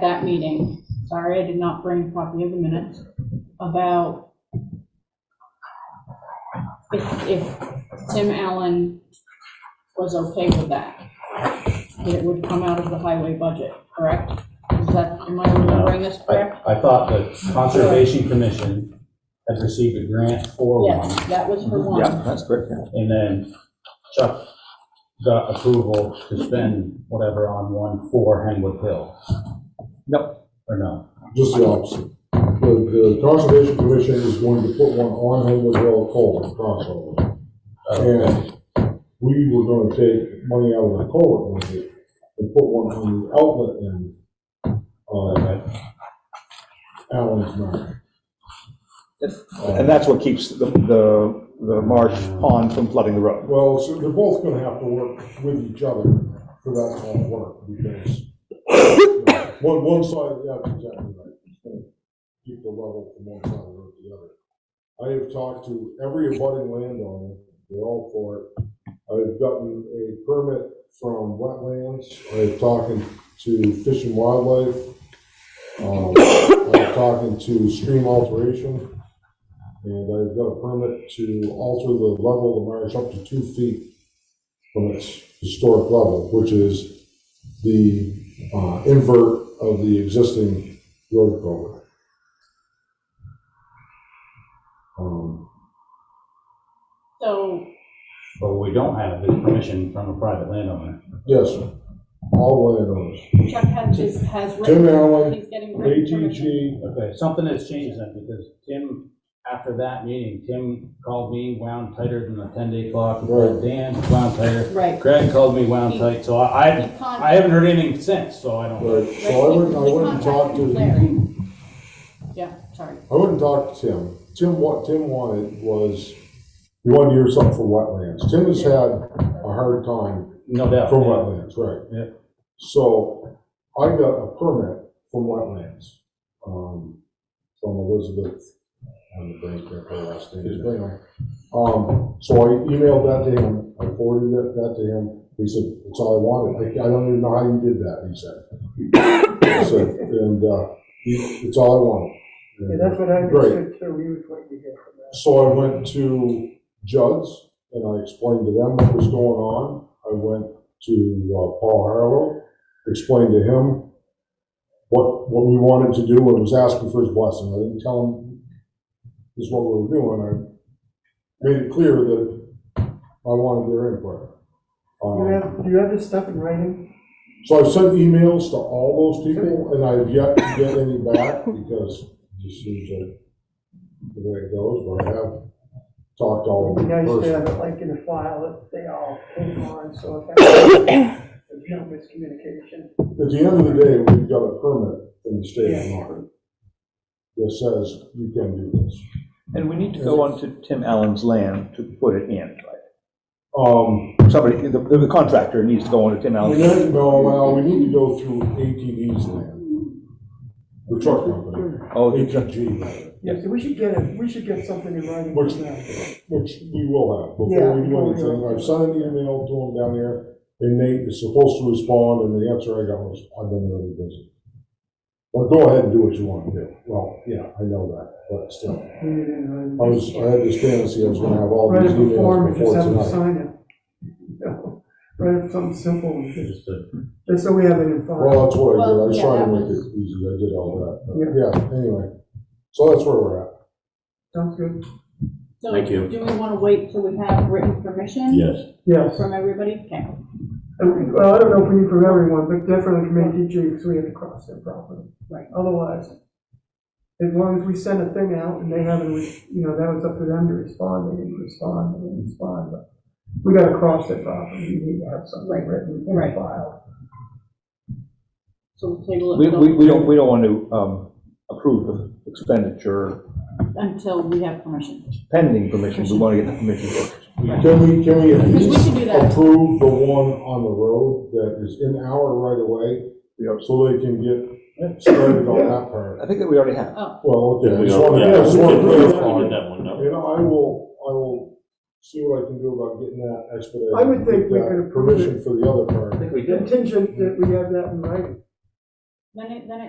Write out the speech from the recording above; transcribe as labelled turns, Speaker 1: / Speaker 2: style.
Speaker 1: that meeting, sorry, I did not bring a copy of the minutes, about if, if Tim Allen was okay with that, that it would come out of the highway budget, correct? Is that, am I remembering this correct?
Speaker 2: I, I thought the Conservation Commission had received a grant for one,
Speaker 1: Yes, that was for
Speaker 3: Mm-hmm. Yeah,
Speaker 1: one.
Speaker 3: that's correct, yeah.
Speaker 2: and then Chuck got approval to spend whatever on one for Henwood Hill.
Speaker 3: Yep.
Speaker 2: Or no?
Speaker 4: Just the opposite. The, the Conservation Commission is going to put one on Haywood Hill Culvert crossover.
Speaker 2: Okay.
Speaker 4: And we were gonna take money out of the culvert budget and put one on the outlet end on Allen's Uh, Mountain.
Speaker 3: And that's what keeps the, the, the marsh pond from flooding the road.
Speaker 4: Well, so they're both gonna have to work with each other for that kind of work because you know, one, one side, yeah, exactly right. You can't Keep the level from one side of the road to the other. I have talked to every abutting landowner, they're all for it. I've gotten a permit from wetlands, I've talking to Fish and Wildlife. Um, I'm talking to stream alteration. And I've got a permit to alter the level of the marsh up to two feet from its historic level, which is the uh, invert of the existing road culvert. Um,
Speaker 1: So,
Speaker 2: But what we don't have is permission from a private landowner.
Speaker 4: Yes, sir. all landowners.
Speaker 1: Chuck has, is- has
Speaker 4: Tim
Speaker 1: written,
Speaker 4: Allen,
Speaker 1: he's getting written permission.
Speaker 4: ATG,
Speaker 2: Okay, something has changed then, because Tim, after that meeting, Tim called me wound tighter than a ten-day clock.
Speaker 4: Right.
Speaker 2: Dan wound tighter.
Speaker 1: Right.
Speaker 2: Greg called me wound tight, so I,
Speaker 1: He
Speaker 2: I-
Speaker 1: con-
Speaker 2: I haven't heard anything since, so I don't.
Speaker 4: right,
Speaker 1: right,
Speaker 4: so I went, I
Speaker 1: he
Speaker 4: went and talked
Speaker 1: contacted
Speaker 4: to,
Speaker 1: Larry. Yeah, sorry.
Speaker 4: I went and talked to Tim. Tim, what Tim wanted was, he wanted to hear something from wetlands. Tim has had a hard time
Speaker 2: No doubt.
Speaker 4: From wetlands, right.
Speaker 2: Yeah.
Speaker 4: So I got a permit from wetlands, um, from Elizabeth, on the bank there, her last name, but anyway. Um, so I emailed that to him, I forwarded that, that to him, he said, that's all I wanted, I, I don't even know how you did that, he said. He said, and, uh, he- it's all I wanted.
Speaker 5: Yeah, that's what I
Speaker 4: Great.
Speaker 5: understood too, we was waiting to hear from that.
Speaker 4: So I went to Judd's and I explained to them what was going on. I went to uh, Paul Harlow, explained to him what, what we wanted to do and was asking for his blessing. I didn't tell him this is what we were doing. I made it clear that I wanted their input.
Speaker 5: You
Speaker 4: Um,
Speaker 5: have, do you have this stuff in writing?
Speaker 4: So I've sent emails to all those people and I've yet to get any back because it just seems like the way it goes, but I have talked to all Oh, of
Speaker 5: It'd be
Speaker 4: them
Speaker 5: nice to
Speaker 4: personally.
Speaker 5: have it like in a file that they all came on, so if that, there's no miscommunication.
Speaker 4: At the end of the day, we've got a permit in the state of Vermont that says you can do this.
Speaker 3: And we need to go onto Tim Allen's land to put it in, right?
Speaker 4: Um,
Speaker 3: Somebody, the, the contractor needs to go onto Tim
Speaker 4: we
Speaker 3: Allen's. land.
Speaker 4: need, no, well, we need to go through ATV's land. The truck company,
Speaker 3: Oh, the-
Speaker 4: ATG, rather,
Speaker 5: Yeah, so we should get it, we should get something in writing.
Speaker 4: What's
Speaker 5: from them.
Speaker 4: which we will have
Speaker 5: Yeah,
Speaker 4: before we do
Speaker 5: before we do
Speaker 4: anything.
Speaker 5: it.
Speaker 4: I've sent an email to them down there, and Nate is supposed to respond, and the answer I got was, I've been really busy. Well, go ahead and do what you want to do. Well, yeah, I know that, but still.
Speaker 5: We need it in writing.
Speaker 4: I was, I had this fantasy I was gonna have all
Speaker 5: Write
Speaker 4: these
Speaker 5: up a form
Speaker 4: emails
Speaker 5: and just
Speaker 4: before
Speaker 5: have them
Speaker 4: tonight.
Speaker 5: sign it. No, Write up something simple, and just-
Speaker 2: Just a-
Speaker 5: just so we have it in file.
Speaker 4: Well, that's what I did, I was
Speaker 1: Well,
Speaker 4: trying to
Speaker 1: yeah,
Speaker 4: make
Speaker 1: that
Speaker 4: it easy, I did all that, but yeah, anyway. So that's where we're at.
Speaker 5: Sounds good?
Speaker 1: So
Speaker 2: Thank you.
Speaker 1: Do we want to wait till we have written permission?
Speaker 2: Yes.
Speaker 5: Yes.
Speaker 1: From everybody? Okay.
Speaker 5: And, Well, I don't know if we need from everyone, but definitely from ATG, because we have to cross their property.
Speaker 1: Right.
Speaker 5: Otherwise, as long as we send a thing out and they haven't, re- you know, that was up to them to respond, they didn't respond, they didn't respond, but we gotta cross their property, we need to have something
Speaker 1: Right.
Speaker 5: written
Speaker 1: Right.
Speaker 5: in file.
Speaker 1: So we'll table
Speaker 3: we,
Speaker 1: it
Speaker 3: we, we don't, we don't want to, um, approve of expenditure
Speaker 1: until we have permission.
Speaker 3: pending permission. We want to get the permission first.
Speaker 4: Can we, can we at
Speaker 1: We
Speaker 4: least
Speaker 1: can do that.
Speaker 4: approve the one on the road that is in our right of way? So they can get started on that part.
Speaker 3: I think that we already have.
Speaker 4: Well, okay, I just wanted, I just wanted to clarify. You know, I will, I will see what I can do about getting that expedited.
Speaker 5: I would think we
Speaker 4: Get that
Speaker 5: could approve it.
Speaker 4: Permission for the other part.
Speaker 2: I think we did.
Speaker 5: Contingent that we have that in writing.
Speaker 1: Then it, then it